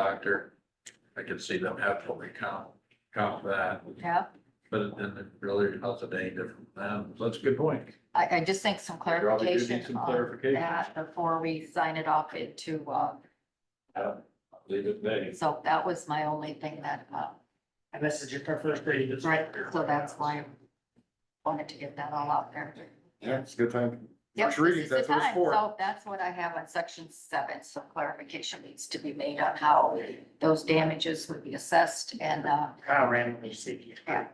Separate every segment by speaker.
Speaker 1: doctor, I could see them absolutely count, count that,
Speaker 2: Yeah,
Speaker 1: but then it really, how's a day different from them? So that's a good point.
Speaker 2: I, I just think some
Speaker 1: Probably do need
Speaker 2: clarification
Speaker 1: some
Speaker 2: on
Speaker 1: clarification.
Speaker 2: that before we sign it off into, uh,
Speaker 1: Leave it there.
Speaker 2: so that was my only thing that, uh,
Speaker 3: And this is just our first reading. it's
Speaker 2: right, so that's why I wanted to get that all out there.
Speaker 4: Yeah, it's a good time.
Speaker 2: Yep,
Speaker 4: First reading,
Speaker 2: this is the
Speaker 4: that's what it's
Speaker 2: time.
Speaker 4: for.
Speaker 2: So that's what I have on section seven, so clarification needs to be made on how those damages would be assessed and, uh,
Speaker 3: Kyle randomly seeking.
Speaker 2: Yeah.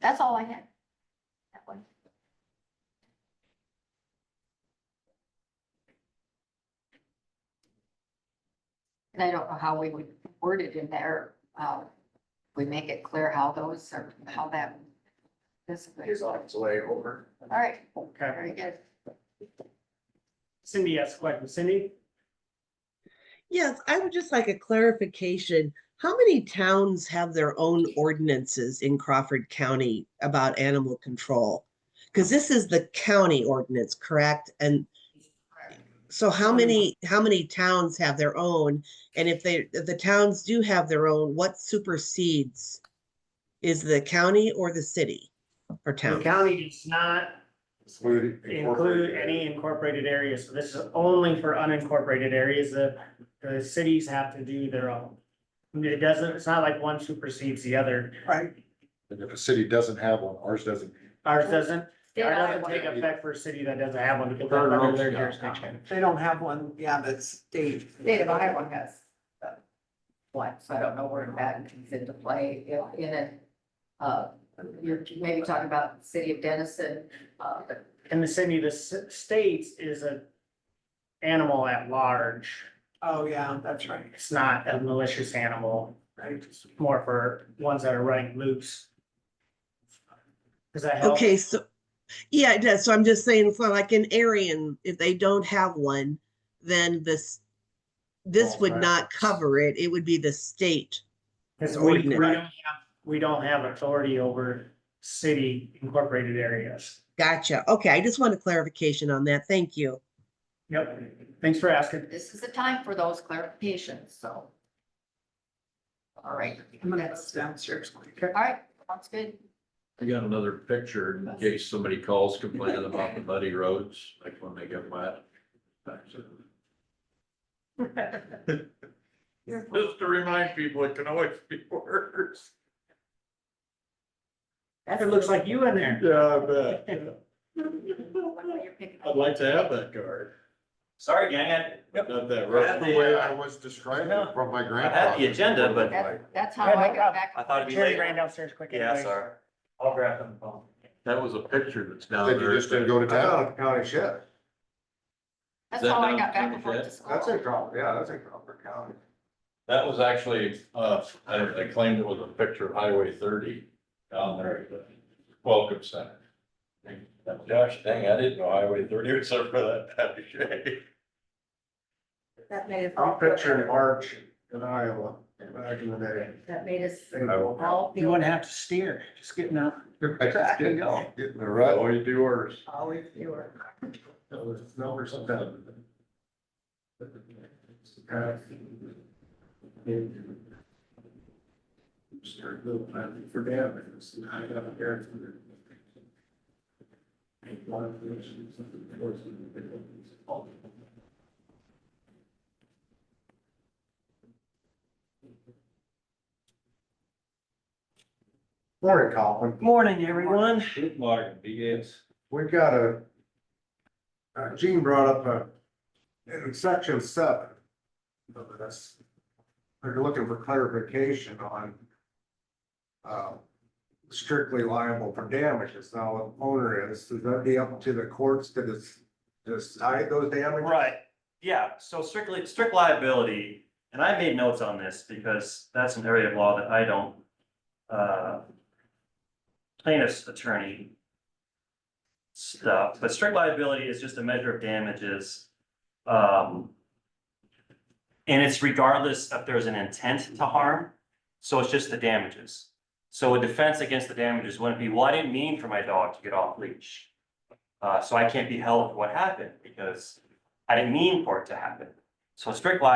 Speaker 2: that's all I had. That one. And I don't know how we would word it in there, uh, we make it clear how those are, how that. This,
Speaker 1: It's on its way over.
Speaker 2: all right,
Speaker 3: Okay.
Speaker 2: very good.
Speaker 3: Cindy asked a question. Cindy?
Speaker 5: Yes, I would just like a clarification. How many towns have their own ordinances in Crawford County about animal control? Because this is the county ordinance, correct? And so how
Speaker 3: Mm.
Speaker 5: many, how many towns have their own? And if they, if the towns do have their own, what supersedes? Is the county or the city or
Speaker 3: The
Speaker 5: town?
Speaker 3: county does not include any incorporated areas, so this is only for unincorporated areas, the, the cities have to do their own. It doesn't, it's not like one supersedes the other,
Speaker 5: Right.
Speaker 4: And if a city doesn't have one, ours doesn't.
Speaker 3: ours doesn't,
Speaker 2: Did
Speaker 3: ours
Speaker 2: I-
Speaker 3: doesn't take effect for a city that doesn't have one, because that's under their jurisdiction.
Speaker 6: They don't have one, yeah, that's state.
Speaker 2: State of Iowa has uh, one, so I don't know where that comes into play, you know, in a, uh, you're maybe talking about the city of Denison, uh,
Speaker 3: And the city, the s- states is a animal at large,
Speaker 6: Oh, yeah, that's right.
Speaker 3: it's not a malicious animal,
Speaker 6: Right.
Speaker 3: it's more for ones that are running loose. Does that help?
Speaker 5: Okay, so, yeah, it does. So I'm just saying, so like in Arian, if they don't have one, then this, this
Speaker 3: Falls
Speaker 5: would
Speaker 3: back.
Speaker 5: not cover it. It would be the state.
Speaker 3: Cause
Speaker 5: It's
Speaker 3: we, we don't
Speaker 5: ordinary.
Speaker 3: have, we don't have authority over city incorporated areas.
Speaker 5: Gotcha. Okay, I just want a clarification on that. Thank you.
Speaker 3: Yep, thanks for asking.
Speaker 2: this is the time for those clarifications, so. All right,
Speaker 6: I'm gonna go
Speaker 2: that's-
Speaker 6: downstairs.
Speaker 2: all right, sounds good.
Speaker 1: I got another picture in case somebody calls complaining about the muddy roads, like when they get wet. Just to remind people, it can always be worse.
Speaker 3: It looks like you in there.
Speaker 1: Yeah, I bet.
Speaker 2: You're picking up.
Speaker 1: I'd like to have that card.
Speaker 7: Sorry, gang, I,
Speaker 1: Not that
Speaker 4: That's
Speaker 1: rough.
Speaker 4: the way I was described it from my grandfather.
Speaker 7: the agenda, but-
Speaker 2: That's, that's how
Speaker 3: Yeah, no
Speaker 2: I got
Speaker 3: problem.
Speaker 2: back.
Speaker 7: I thought it'd be
Speaker 3: Jerry
Speaker 7: late.
Speaker 3: ran downstairs quick.
Speaker 7: yeah,
Speaker 3: anyway.
Speaker 7: sorry. I'll grab them phone.
Speaker 1: That was a picture that's down there.
Speaker 4: Said you just didn't go to town.
Speaker 8: County sheriff.
Speaker 2: That's
Speaker 1: Is that
Speaker 2: how I
Speaker 1: down
Speaker 2: got
Speaker 1: in
Speaker 2: back and forth to
Speaker 1: Joliet?
Speaker 2: school.
Speaker 8: That's a Crawford, yeah, that's a Crawford County.
Speaker 1: That was actually, uh, I I claimed it was a picture of Highway thirty down there, at the welcome center. Gosh dang, I didn't know Highway thirty was up for that bad of shape.
Speaker 2: That made us.
Speaker 8: I'm picturing March in Iowa back in the day.
Speaker 2: That made us
Speaker 8: I will-
Speaker 2: all
Speaker 3: You
Speaker 2: feel.
Speaker 3: wouldn't have to steer, just getting up.
Speaker 4: I just
Speaker 6: There you
Speaker 4: didn't
Speaker 6: go.
Speaker 4: get in the rut.
Speaker 1: Oh, you do worse.
Speaker 6: Always fewer.
Speaker 8: That was number seven. Start little planning for damages. and I got a guarantee. One of the issues of the course of the- Morning, Colin.
Speaker 3: Morning, everyone.
Speaker 1: Shoot, Martin, BS.
Speaker 8: We've got a, uh, Gene brought up a, in section seven of this, they're looking for clarification on uh, strictly liable for damages. Now, if owner is, does that be up to the courts to des- decide those damages?
Speaker 7: Right, yeah, so strictly, strict liability, and I made notes on this because that's an area of law that I don't, uh, plaintiff's attorney stuff, but strict liability is just a measure of damages. Um, and it's regardless if there's an intent to harm, so it's just the damages. So a defense against the damages wouldn't be, well, I didn't mean for my dog to get off leash. Uh, so I can't be held for what happened because I didn't mean for it to happen. So strict liability